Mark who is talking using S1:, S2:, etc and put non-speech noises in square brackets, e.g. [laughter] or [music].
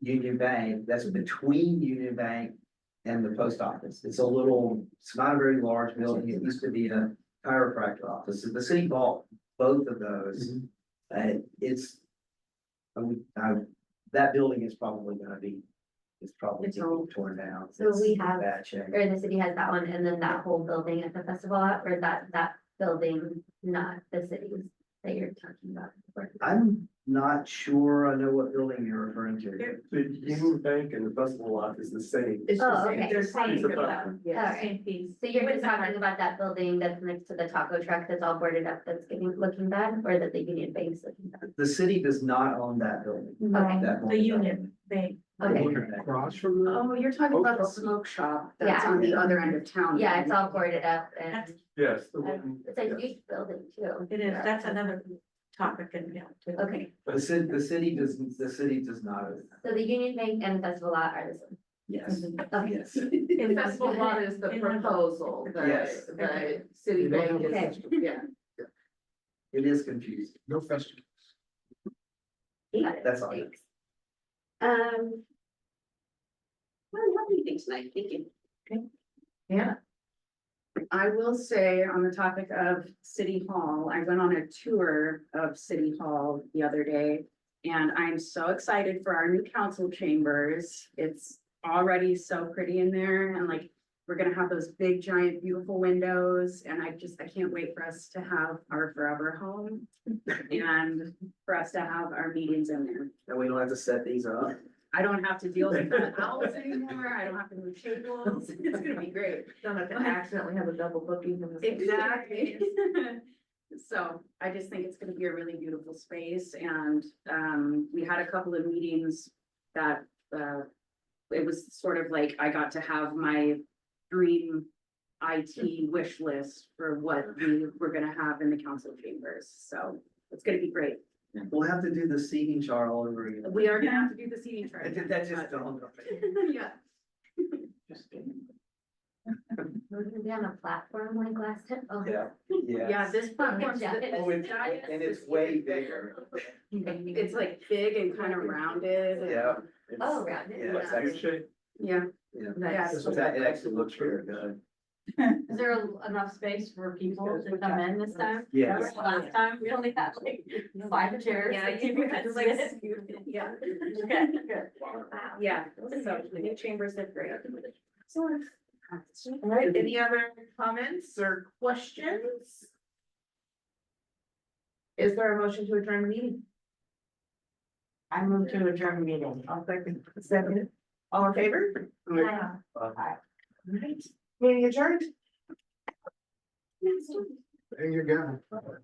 S1: Union Bank, that's between Union Bank and the post office. It's a little, it's not a very large building. It used to be a chiropractor office. The city bought both of those. And it's, I mean, I, that building is probably gonna be, it's probably
S2: It's
S1: gonna be
S2: old.
S1: torn down.
S2: So
S1: It's
S2: we
S1: in
S2: have-
S1: Bad shape.
S2: or the city has that one, and then that whole building at the festival, lot, or that, that building, not the cities that you're talking about.
S1: I'm not sure I know what building you're referring to.
S3: The Union Bank and the festival lot is the same.
S4: It's
S2: Oh,
S4: the same,
S2: okay.
S4: they're
S3: It's
S4: saying
S3: a
S4: about,
S3: button.
S4: yeah,
S2: Alright.
S4: same piece.
S2: So you're
S4: With
S2: just
S4: the
S2: talking
S4: mark.
S2: about that building that's next to the taco truck that's all boarded up, that's getting, looking bad, or that the Union Bank's looking bad?
S1: The city does not own that building.
S2: Okay.
S1: that
S4: The
S1: one.
S4: Union Bank.
S2: Okay.
S5: Across from the.
S6: Oh, you're talking about the smoke shop that's on the other end of town.
S2: Yeah, it's all boarded up and
S4: That's-
S3: Yes, the
S2: Yeah.
S3: one.
S2: it's a huge building too.
S4: It is, that's another topic in now too. [laughs]
S2: Okay,
S1: The city, the city does, the city does not own that.
S2: so the Union Bank and the festival lot are the same.
S1: Yes,
S2: Okay,
S1: [laughs] yes.
S4: In the-
S6: [laughs] Festival lot is the
S4: In the-
S6: proposal,
S1: Yes.
S6: the, the city bank
S2: Okay.
S6: is, yeah.
S1: It is confusing.
S5: No festival.
S2: got it,
S1: That's all I got.
S2: thanks. Um,
S6: I don't have anything tonight, thank you. Yeah. I will say on the topic of City Hall, I went on a tour of City Hall the other day. And I'm so excited for our new council chambers. It's already so pretty in there and like. We're gonna have those big giant beautiful windows and I just, I can't wait for us to have our forever home. And for us to have our meetings in there.
S1: And we don't have to set these up.
S6: I don't have to deal with the owls anymore, I don't have to move tables, [laughs] it's gonna be great.
S4: Don't have to accidentally have a double booking. in the-
S6: Exactly. [laughs] So I just think it's gonna be a really beautiful space and um we had a couple of meetings that uh. It was sort of like I got to have my dream IT wish list for what we were gonna have in the council chambers, so it's gonna be great.
S1: We'll have to do the seating chart all over again.
S6: We are gonna have to do the seating chart.
S1: That just dawned on me.
S6: Yeah.
S2: we're gonna be on a platform like last time. Oh,
S1: Yeah,
S6: Yeah,
S1: yeah.
S6: this platform's
S2: Yeah.
S6: the
S1: Oh, it's-
S6: giant.
S1: And it's way bigger.
S6: It's like big and kind of rounded. and-
S1: Yeah. It's-
S2: Oh, rounded,
S1: Yeah, it's
S6: yeah.
S1: actually,
S6: Yeah,
S1: yeah.
S6: yeah.
S1: It's- It actually looks very good.
S4: Is there enough space for people to come in this time?
S1: Yes,
S4: Last time, we only had like five chairs.
S2: Yeah,
S4: and
S2: you
S4: people
S2: had
S4: could
S2: like-
S4: sit.
S6: Yeah,
S2: [laughs]
S4: Okay, good.
S2: Wow.
S6: yeah, so new chambers are great.
S4: Excellent. [laughs] All right, any other comments or questions? Is there a motion to adjourn the meeting? I move to adjourn the meeting. I'll second. Second. All in favor?
S2: Aye.
S4: Aye. All right, meeting adjourned.
S5: There you go.